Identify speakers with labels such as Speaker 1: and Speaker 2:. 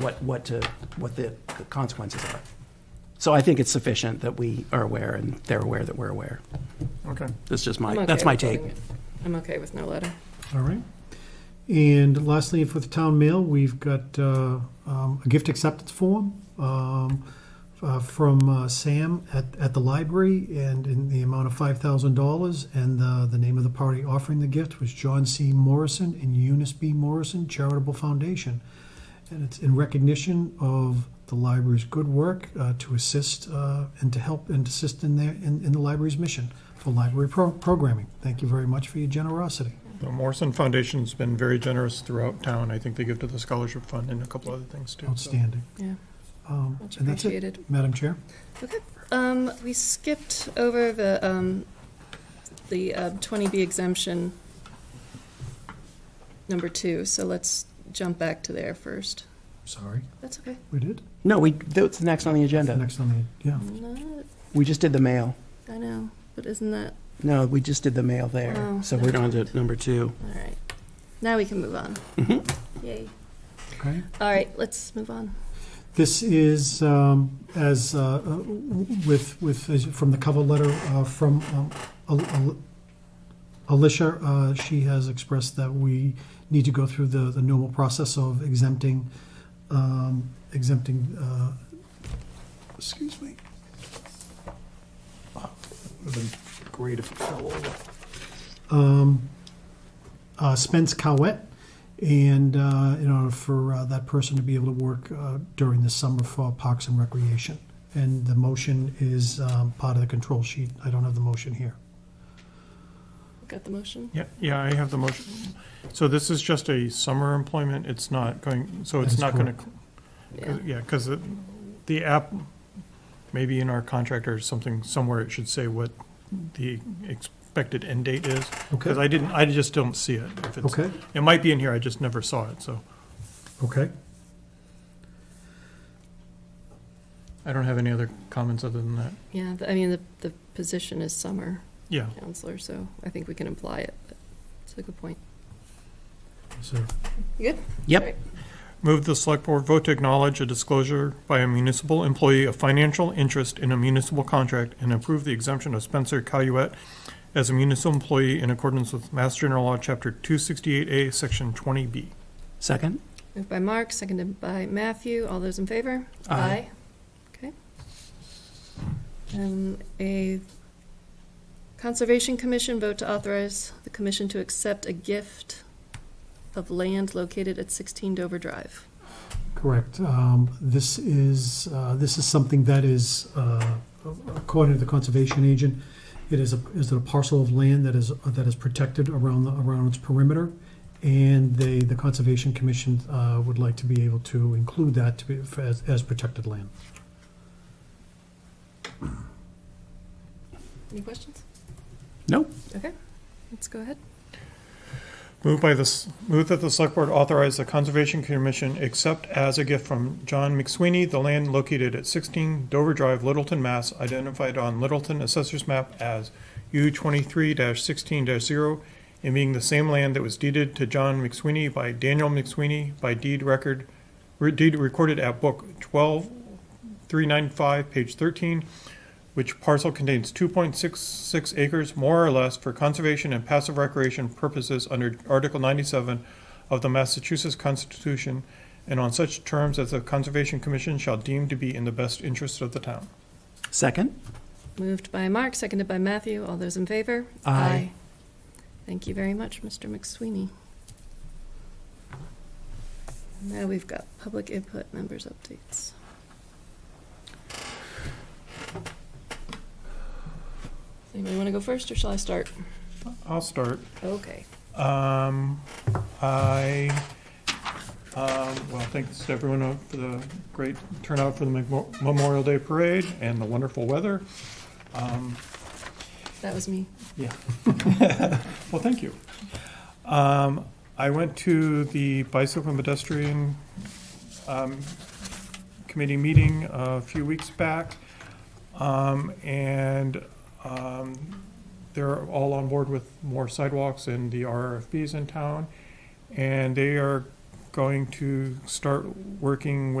Speaker 1: what, what, to, what the the consequences are. So I think it's sufficient that we are aware and they're aware that we're aware.
Speaker 2: Okay.
Speaker 1: That's just my,
Speaker 3: I'm okay
Speaker 1: that's my
Speaker 3: with
Speaker 1: take.
Speaker 3: voting it. I'm okay with no letter.
Speaker 2: All right. And lastly, for the town mail, we've got uh, um, a gift acceptance form um, uh, from uh, Sam at, at the library and in the amount of $5,000. And uh, the name of the party offering the gift was John C. Morrison and Eunice B. Morrison Charitable Foundation. And it's in recognition of the library's good work uh, to assist uh, and to help and assist in, their, in, in the library's mission for library pro- programming. Thank you very much for your generosity.
Speaker 4: The Morrison Foundation's been very generous throughout town. I think they give to the scholarship fund and a couple other things too. so.
Speaker 2: Outstanding.
Speaker 3: Yeah,
Speaker 2: Um,
Speaker 3: much
Speaker 2: And that's it,
Speaker 3: appreciated.
Speaker 2: Madam Chair.
Speaker 3: Um, we skipped over the, um, the uh, 20B exemption number two, so let's jump back to there first.
Speaker 2: Sorry,
Speaker 3: That's okay.
Speaker 2: we did.
Speaker 1: No, we, that's next on the agenda.
Speaker 2: Next on the, yeah.
Speaker 3: Not,
Speaker 1: We just did the mail.
Speaker 3: I know, but isn't that,
Speaker 1: No, we just did the mail there.
Speaker 3: Oh.
Speaker 1: So we're on to number two.
Speaker 3: all right. Now we can move on.
Speaker 1: Mhm.
Speaker 3: Yay.
Speaker 2: Okay.
Speaker 3: All right, let's move on.
Speaker 2: This is um, as uh, uh, with with as from the cover letter uh, from um, Al- Al- Alicia. Uh, she has expressed that we need to go through the the normal process of exempting um, exempting. Uh, excuse me. would have been great if it fell over. Um, uh, Spence Cowett, and uh, in order for uh, that person to be able to work uh, during the summer for Parks and Recreation. And the motion is um, part of the control sheet. I don't have the motion here.
Speaker 3: Got the motion?
Speaker 4: Yeah, yeah, I have the motion. So this is just a summer employment. It's not going, so
Speaker 2: That
Speaker 4: it's
Speaker 2: is
Speaker 4: not going
Speaker 3: Yeah.
Speaker 4: to, yeah, because the app, maybe in our contract or something, somewhere it should say what the expected end date is. Because
Speaker 2: Okay.
Speaker 4: I didn't, I just don't see it. If it's-
Speaker 2: Okay.
Speaker 4: It might be in here, I just never saw it, so
Speaker 2: Okay.
Speaker 4: I don't have any other comments other than that.
Speaker 3: Yeah, th- I mean, the, the position is summer
Speaker 4: Yeah,
Speaker 3: counselor, so I think we can imply it. but It's a good point.
Speaker 2: So,
Speaker 1: Yep.
Speaker 4: Move the select board vote to acknowledge a disclosure by a municipal employee of financial interest in a municipal contract and approve the exemption of Spencer Caluette as a municipal employee in accordance with Mass General Law, Chapter 268A, Section 20B.
Speaker 1: Second?
Speaker 3: Moved by Mark, seconded by Matthew. All those in favor?
Speaker 1: Aye.
Speaker 3: Okay. Um, a Conservation Commission vote to authorize the commission to accept a gift of land located at 16 Dover Drive.
Speaker 2: correct. Um, This is, uh, this is something that is, uh, according to the conservation agent, it is a, is a parcel of land that is, that is protected around, the around its perimeter. And they, the Conservation Commission uh, would like to be able to include that to be, as, as protected land.
Speaker 3: Any questions?
Speaker 1: Nope.
Speaker 3: Okay, let's go ahead.
Speaker 4: Move by this, move that the select board authorize the Conservation Commission accept as a gift from John McSweeney the land located at 16 Dover Drive, Littleton, Mass, identified on Littleton Assessor's Map as U 23-16-0, and being the same land that was deeded to John McSweeney by Daniel McSweeney by deed record, re- deed recorded at Book 12395, page 13, which parcel contains 2.66 acres, more or less, for conservation and passive recreation purposes under Article 97 of the Massachusetts Constitution, and on such terms as the Conservation Commission shall deem to be in the best interest of the town.
Speaker 1: Second?
Speaker 3: Moved by Mark, seconded by Matthew. All those in favor?
Speaker 1: Aye.
Speaker 3: Thank you very much, Mr. McSweeney. Now we've got public input members updates. Anybody want to go first, or shall I start?
Speaker 4: I'll start.
Speaker 3: Okay.
Speaker 4: Um, I, um, well, thanks to everyone out for the great turnout for the Memo- Memorial Day Parade and the wonderful weather. Um,
Speaker 3: That was me.
Speaker 4: Yeah. Well, thank you. Um, I went to the bicycle and pedestrian, um, committee meeting a few weeks back. Um, and, um, they're all on board with more sidewalks and the RFBs in town. And they are going to start working